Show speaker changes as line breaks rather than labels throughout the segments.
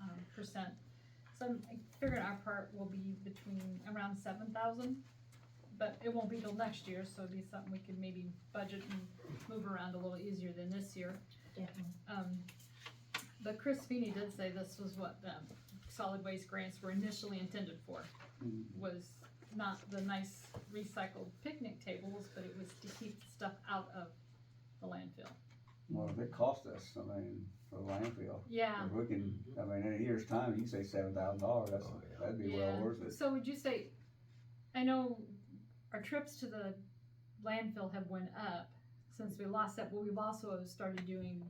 um, percent. So I'm- I figured our part will be between around seven thousand, but it won't be till next year, so it'd be something we could maybe budget and move around a little easier than this year. Um, but Chris Feeney did say this was what the solid waste grants were initially intended for,
Mm-hmm.
was not the nice recycled picnic tables, but it was to keep stuff out of the landfill.
Well, if it cost us, I mean, for the landfill,
Yeah,
if we can, I mean, in a year's time, you can say seven thousand dollars, that's,
Oh, yeah.
that'd be
Yeah.
well worth it.
so would you say, I know our trips to the landfill have went up since we lost that, but we've also started doing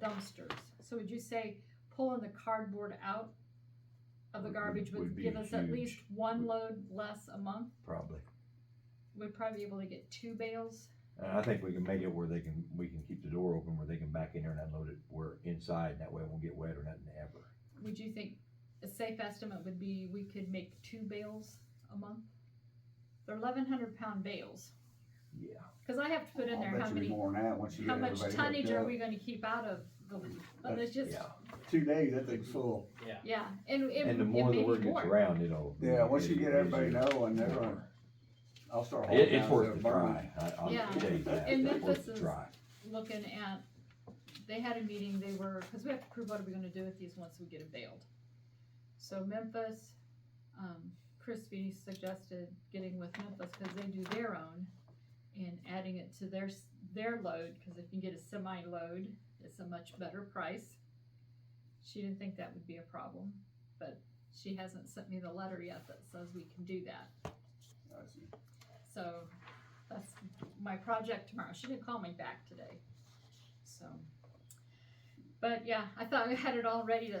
dumpsters. So would you say pulling the cardboard out of the
Would-
garbage would
would be
give us at
huge.
least one load less a month?
Probably.
We'd probably be able to get two bales.
And I think we can make it where they can, we can keep the door open where they can back in there and unload it, where inside, and that way it won't get wet or nothing ever.
Would you think a safe estimate would be we could make two bales a month? They're eleven hundred pound bales,
Yeah.
cause I have to put in there
I'll bet
how
you be
many
more than that once you get
How much
everybody hooked
tonnage are
up.
we gonna keep out of the, but it's just,
Yeah,
Two days, that thing's full.
Yeah.
yeah, and, and
and the
it
more
may
the
be
word gets
more.
around, it'll.
Yeah, once you
it'll
get
be
everybody
easier.
knowing, they're gonna, I'll start. hauling
It, it's
down
worth
stuff,
the
burning.
try, I, I'll
Yeah.
tell you that,
And
it's worth
Memphis
the
is-
try.
Looking at, they had a meeting, they were, cause we have to prove what are we gonna do with these once we get them bailed. So Memphis, um, Crispy suggested getting with Memphis, cause they do their own, and adding it to their, s- their load, cause if you get a semi load, it's a much better price. She didn't think that would be a problem, but she hasn't sent me the letter yet that says we can do that.
I see.
So that's my project tomorrow. She didn't call me back today. So, but yeah, I thought we had it all ready to,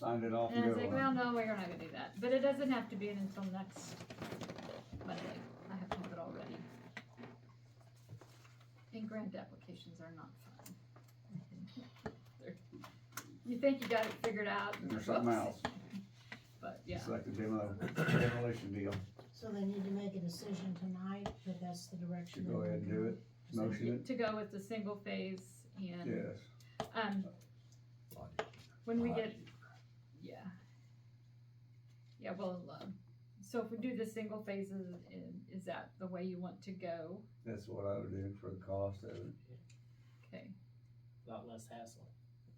Signed it off
and
and
I was like, well,
go.
no, we're not gonna do that. But it doesn't have to be in until next Monday. I have to have it all ready. And grant applications are not fun. They're- You think you got it figured out. and
And There's something
whoops.
else,
But yeah,
it's like the demo, demolition deal,
So they need to make a decision tonight, but that's the direction.
Should go
they're
ahead and do
going. Is that-
motion
to go with the single phase
it,
and,
yes.
um, When
Uh,
we get, yeah. Yeah, well, um, so if we do the single phases, i- is that the way you want to go?
That's what I would do for the cost of it.
Okay,
Lot less hassle.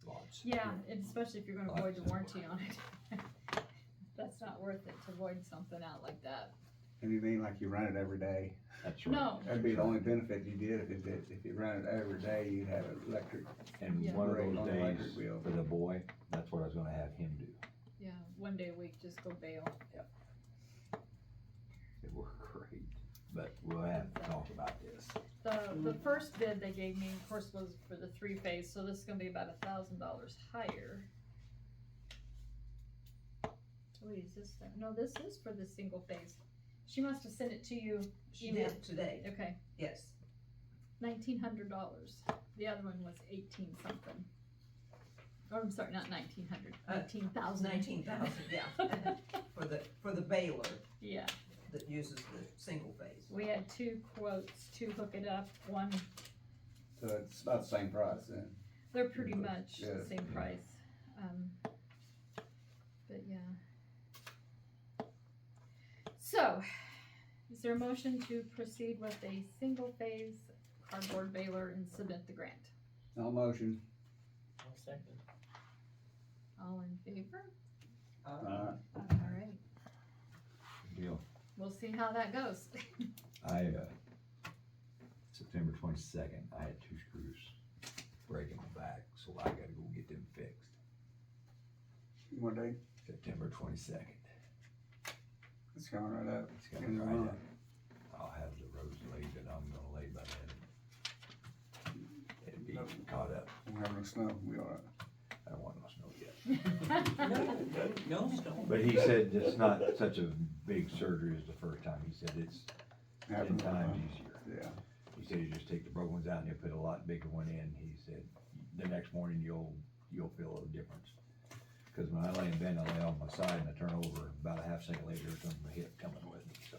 Lots.
yeah, and especially if you're gonna
Well,
void the
that's-
warranty on it. That's not worth it to void something out like that.
And you mean like you run it every day?
That's right.
No,
That'd be the only benefit you did if it did, if you ran it every day, you'd have an electric.
And
Yeah.
one of
rate
those
on the electric
days,
bill.
for the boy, that's what I was gonna have him do,
yeah, one day a week, just go bail.
it worked great, but we'll have to talk about this.
The, the first bid they gave me, of course, was for the three phase, so this is gonna be about a thousand dollars higher. Wait, is this, the- no, this is for the single phase. She must have sent it to you,
She
Email.
did today,
okay,
yes.
nineteen hundred dollars. The other one was eighteen something. Or I'm sorry, not nineteen hundred,
Uh,
nineteen
That was
thousand.
nineteen thousand, yeah, for the, for the baler
Yeah,
that uses the single phase.
we had two quotes to hook it up, one,
So it's about the same price then.
they're pretty much the
Yeah.
same price. Um, But yeah. So, is there a motion to proceed with a single phase cardboard baler and submit the grant?
No motion,
I'll second.
All in favor?
uh,
All right,
Deal,
we'll see how that goes.
I, uh, September twenty-second, I had two screws breaking my back, so I gotta go get them fixed,
one day,
September twenty-second.
it's coming right up.
It's gonna dry up. I'll have the roads laid that I'm gonna lay by then. It'll be caught up,
We're having snow, we are.
I don't want no snow yet.
No, no, no.
But he said it's not such a big surgery as the first time, he said it's ten
having
times
fun.
easier.
Yeah,
He said you just take the broken ones out and you put a lot bigger one in, he said, the next morning you'll, you'll feel a difference. Cause when I lay in bed, I lay on my side and I turn over, about a half second later, it's on my hip coming with me, so.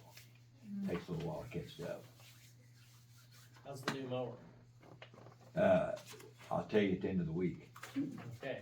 Takes a little while to catch up.
How's the new mower?
Uh, I'll tell you at the end of the week.
Okay.